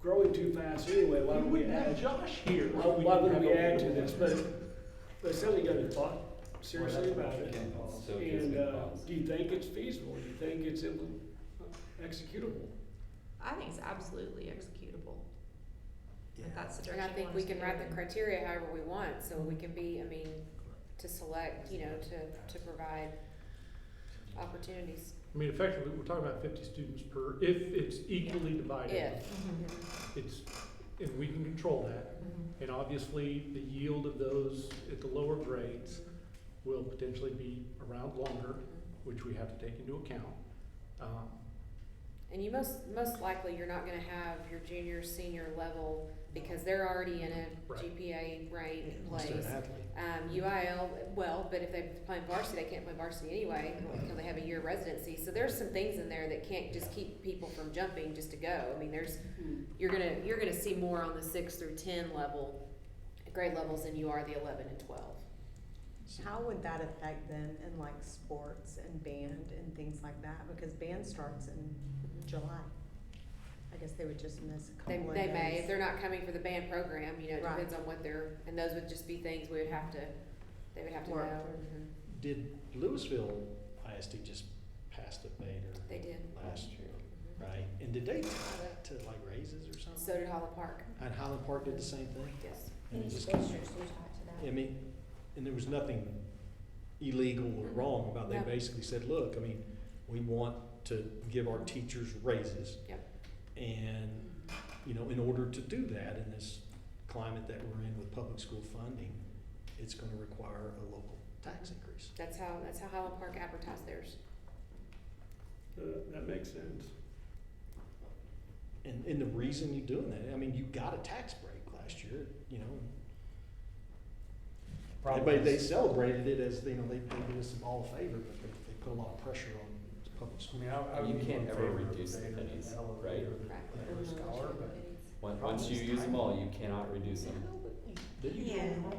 growing too fast anyway, why You would we wouldn't have add? Josh here. Why why would we add to this? But, but Sally got a thought seriously Well, about it. that's what you can So it gets And, good uh, policy. do you think it's feasible? Do you think it's im- executable? I think it's absolutely executable, Yeah. if that's the And I direction you think want we us to can go write in. the criteria however we want, so we can be, I mean, to select, you know, to, to provide opportunities. I mean, effectively, we're talking about fifty students per, if it's equally divided, If, Mm-hmm. it's, and we can control that. And obviously, the yield of those at the lower grades will potentially be around longer, which we have to take into account. Um, and you most, most likely, you're not gonna have your junior, senior level, because they're already in a Right. GPA ranked Let's do place. it happily. Um, UIL, well, but if they're playing varsity, they can't play varsity anyway, until they have a year of residency, so there's some things in there that can't just keep people from jumping just to go, I mean, there's Hmm. you're gonna, you're gonna see more on the six through ten level, grade levels than you are the eleven and twelve. How would that affect them in like sports and band and things like that? Because band starts in July. I guess they would just miss a They, couple of they may, if days. they're not coming for the band program, you know, it Right. depends on what they're, and those would just be things we would have to, they would have to know. Work Mhm. Did Louisville ISD just pass a beta They did. last year, Mhm. right? And did they tie that to like raises or something? So did Holland Park, And Highland Park did the same thing? yes. And it just came- I mean, and there was nothing illegal or wrong about, it. No. they basically said, look, I mean, we want to give our teachers raises. Yep. And, you know, in order to do that in this climate that we're in with public school funding, it's gonna require a local tax increase. That's how, that's how Highland Park advertised theirs. Uh, that makes sense. And, and the reason you're doing that, I mean, you got a tax break last year, you know, But they celebrated it as, you know, they, they did us some all favor, but they, they put a lot of pressure on public I school. mean, I, I would You be can't in favor ever of reduce the Vader and pennies, Ella right? Vader Right. and Right. Lewis Scholar, The but when, problem once you is use them timing. all, you cannot reduce them. Mm-hmm. Yeah, but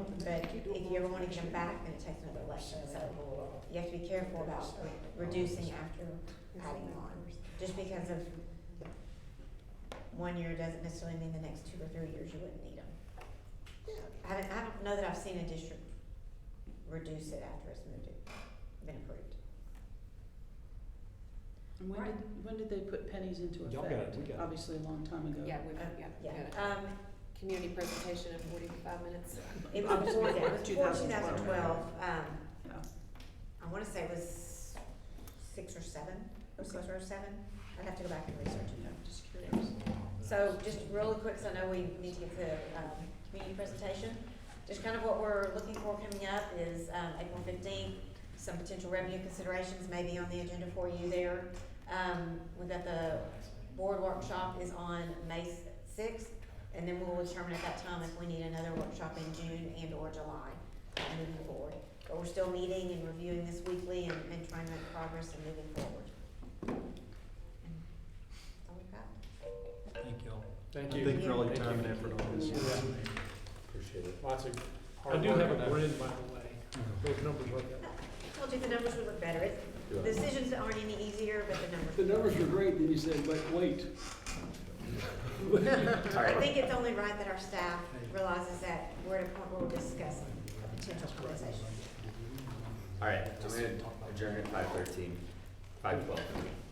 if you ever wanna come back, then it takes another election, so you have to be careful about reducing after adding on. Just because of one year doesn't necessarily mean the next two or three years you wouldn't need them. I don't, I don't know that I've seen a district reduce it after it's moved, it- been approved. And when did, when did they put pennies into Y'all got it, effect? we got it. Obviously, a long time ago. Yeah, we've, Uh, yeah, Yeah, we've got um, a community presentation in forty-five minutes. it was before that, it was before two 2012. thousand twelve, um, Yeah. I wanna say it was six or seven, or six or seven, I'd have to go back and research it. Yeah, just curious. So just really quick, so I know we need to get to the um, community presentation. Just kind of what we're looking for coming up is um, April fifteenth, some potential revenue considerations may be on the agenda for you there. Um, We've got the board workshop is on May sixth, and then we'll determine at that time if we need another workshop in June and or July uh, moving forward. But we're still meeting and reviewing this weekly and and trying to make progress and moving forward. And That's all we've got. Thank y'all. Thank I you. think for all your time and effort on this. Appreciate it. Lots of hard I do work have on a that. grid, by the way. Those numbers are. I told you the numbers would look better. It- Do The I- decisions aren't any easier, but the numbers. The numbers were great, then you said, but wait. I think it's only right that our staff realizes that we're at a point where we're discussing a potential compensation. All right, just adjourn at five thirteen, five twelve.